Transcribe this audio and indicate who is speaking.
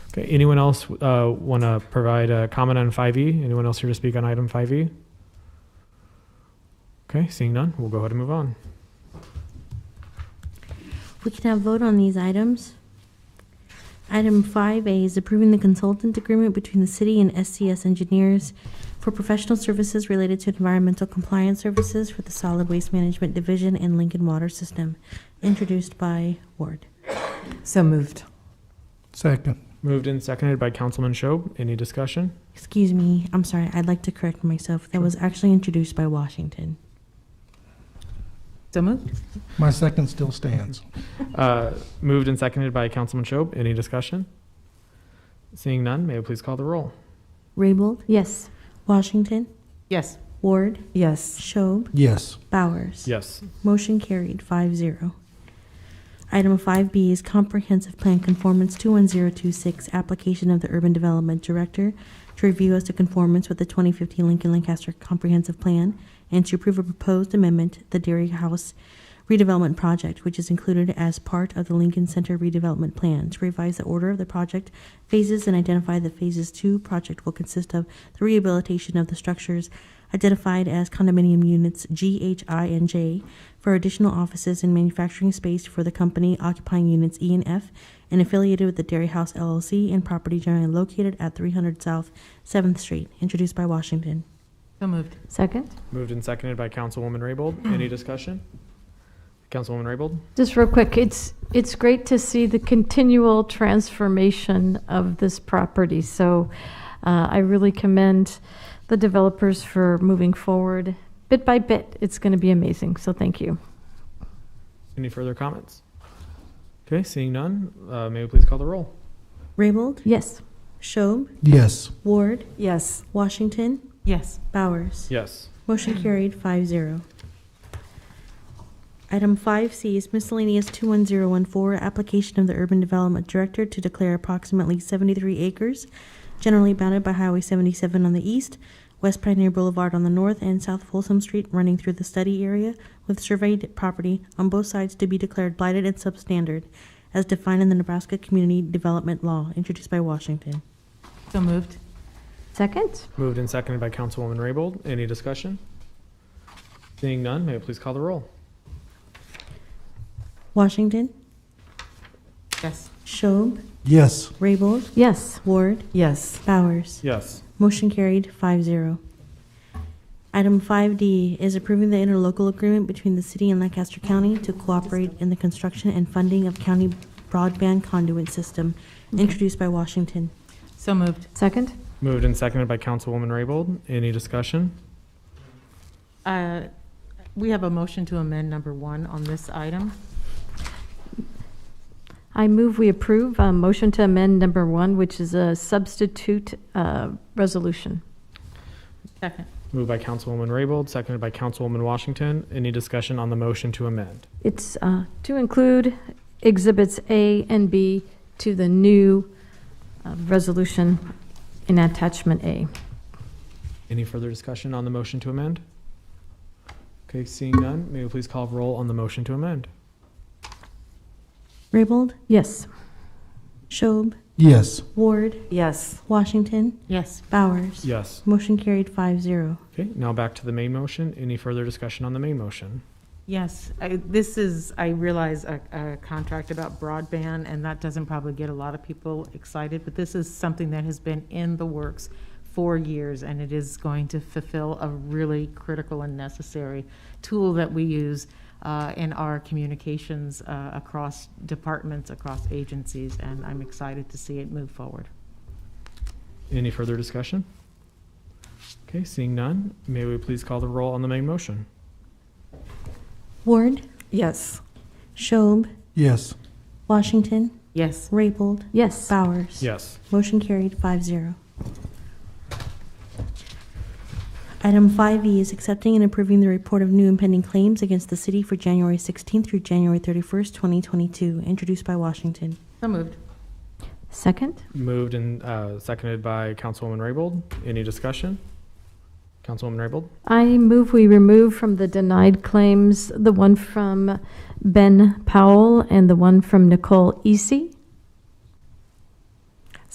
Speaker 1: Okay, anyone else uh, want to provide a comment on 5E? Anyone else here to speak on item 5E? Okay, seeing none, we'll go ahead and move on.
Speaker 2: We can have vote on these items. Item 5A is approving the consultant agreement between the city and SCS engineers for professional services related to environmental compliance services for the Solid Waste Management Division and Lincoln Water System, introduced by Ward.
Speaker 3: So moved.
Speaker 4: Second.
Speaker 1: Moved and seconded by Councilman Shob. Any discussion?
Speaker 2: Excuse me, I'm sorry, I'd like to correct myself. That was actually introduced by Washington.
Speaker 3: So moved.
Speaker 4: My second still stands.
Speaker 1: Uh, moved and seconded by Councilman Shob. Any discussion? Seeing none, may I please call the roll?
Speaker 2: Raybold,
Speaker 3: Yes.
Speaker 2: Washington,
Speaker 3: Yes.
Speaker 2: Ward,
Speaker 3: Yes.
Speaker 2: Schob,
Speaker 4: Yes.
Speaker 2: Bowers.
Speaker 1: Yes.
Speaker 2: Motion carried, 5-0. Item five B is comprehensive plan conformance two one zero two six, application of the urban development director to review as to conformance with the twenty fifteen Lincoln Lancaster Comprehensive Plan and to approve a proposed amendment, to the Dairy House redevelopment project, which is included as part of the Lincoln Center redevelopment plan, to revise the order of the project phases and identify the phases two project will consist of the rehabilitation of the structures identified as condominium units G, H, I, and J for additional offices and manufacturing space for the company occupying units E and F and affiliated with the Dairy House LLC and property generally located at 300 South 7th Street, introduced by Washington.
Speaker 3: So moved.
Speaker 5: Second.
Speaker 1: Moved and seconded by Councilwoman Raybold. Any discussion? Councilwoman Raybold?
Speaker 5: Just real quick, it's, it's great to see the continual transformation of this property. So uh, I really commend the developers for moving forward bit by bit. It's going to be amazing, so thank you.
Speaker 1: Any further comments? Okay, seeing none, uh, may we please call the roll?
Speaker 2: Raybold,
Speaker 5: Yes.
Speaker 2: Schob,
Speaker 4: Yes.
Speaker 2: Ward,
Speaker 3: Yes.
Speaker 2: Washington,
Speaker 3: Yes.
Speaker 2: Bowers.
Speaker 1: Yes.
Speaker 2: Motion carried, 5-0. Item five C is miscellaneous two one zero one four, application of the Urban Development Director to declare approximately seventy-three acres generally bounded by Highway seventy-seven on the east, West Pioneer Boulevard on the north, and South Folsom Street running through the study area with surveyed property on both sides to be declared blighted and substandard as defined in the Nebraska Community Development Law, introduced by Washington.
Speaker 3: So moved.
Speaker 5: Second.
Speaker 1: Moved and seconded by Councilwoman Raybold. Any discussion? Seeing none, may I please call the roll?
Speaker 2: Washington,
Speaker 3: Yes.
Speaker 2: Schob,
Speaker 4: Yes.
Speaker 2: Raybold,
Speaker 5: Yes.
Speaker 2: Ward,
Speaker 3: Yes.
Speaker 2: Bowers.
Speaker 1: Yes.
Speaker 2: Motion carried, 5-0. Item five D is approving the interlocal agreement between the city and Lancaster County to cooperate in the construction and funding of county broadband conduit system, introduced by Washington.
Speaker 3: So moved.
Speaker 5: Second.
Speaker 1: Moved and seconded by Councilwoman Raybold. Any discussion?
Speaker 3: Uh, We have a motion to amend number one on this item.
Speaker 5: I move we approve uh, motion to amend number one, which is a substitute uh, resolution.
Speaker 3: Second.
Speaker 1: Moved by Councilwoman Raybold, seconded by Councilwoman Washington. Any discussion on the motion to amend?
Speaker 5: It's uh, to include exhibits A and B to the new uh, resolution in attachment A.
Speaker 1: Any further discussion on the motion to amend? Okay, seeing none, may we please call roll on the motion to amend?
Speaker 2: Raybold,
Speaker 5: Yes.
Speaker 2: Schob,
Speaker 4: Yes.
Speaker 2: Ward,
Speaker 3: Yes.
Speaker 2: Washington,
Speaker 3: Yes.
Speaker 2: Bowers.
Speaker 1: Yes.
Speaker 2: Motion carried, 5-0. zero.
Speaker 1: Okay, now back to the main motion. Any further discussion on the main motion?
Speaker 3: Yes. I- This is, I realize, a, a contract about broadband, and that doesn't probably get a lot of people excited, but this is something that has been in the works for years, and it is going to fulfill a really critical and necessary tool that we use uh, in our communications uh, across departments, across agencies, and I'm excited to see it move forward.
Speaker 1: Any further discussion? Okay, seeing none, may we please call the roll on the main motion?
Speaker 2: Ward,
Speaker 3: Yes.
Speaker 2: Schob,
Speaker 4: Yes.
Speaker 2: Washington,
Speaker 3: Yes.
Speaker 2: Raybold,
Speaker 5: Yes.
Speaker 2: Bowers.
Speaker 1: Yes.
Speaker 2: Motion carried, 5-0. Item five E is accepting and approving the report of new impending claims against the city for January sixteenth through January thirty-first, twenty twenty-two, introduced by Washington.
Speaker 3: So moved.
Speaker 5: Second?
Speaker 1: Moved and uh, seconded by Councilwoman Raybold. Any discussion? Councilwoman Raybold?
Speaker 5: I move we remove from the denied claims the one from Ben Powell and the one from Nicole Easy